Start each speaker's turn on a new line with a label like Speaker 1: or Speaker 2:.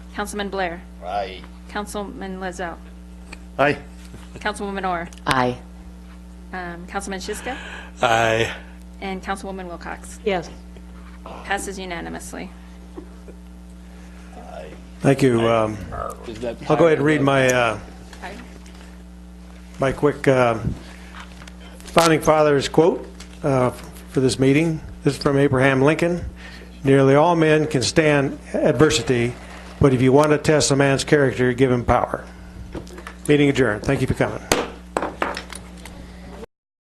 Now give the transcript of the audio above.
Speaker 1: Councilman Blair.
Speaker 2: Aye.
Speaker 1: Councilman Lizzo.
Speaker 2: Aye.
Speaker 1: Councilwoman Orr.
Speaker 3: Aye.
Speaker 1: um, Councilman Shiska.
Speaker 4: Aye.
Speaker 1: And Councilwoman Wilcox.
Speaker 3: Yes.
Speaker 1: Passes unanimously.
Speaker 5: Thank you. Um, I'll go ahead and read my, uh, my quick uh, Founding Fathers quote uh, for this meeting. This is from Abraham Lincoln. "Nearly all men can stand adversity, but if you want to test a man's character, give him power." Meeting adjourned. Thank you for coming.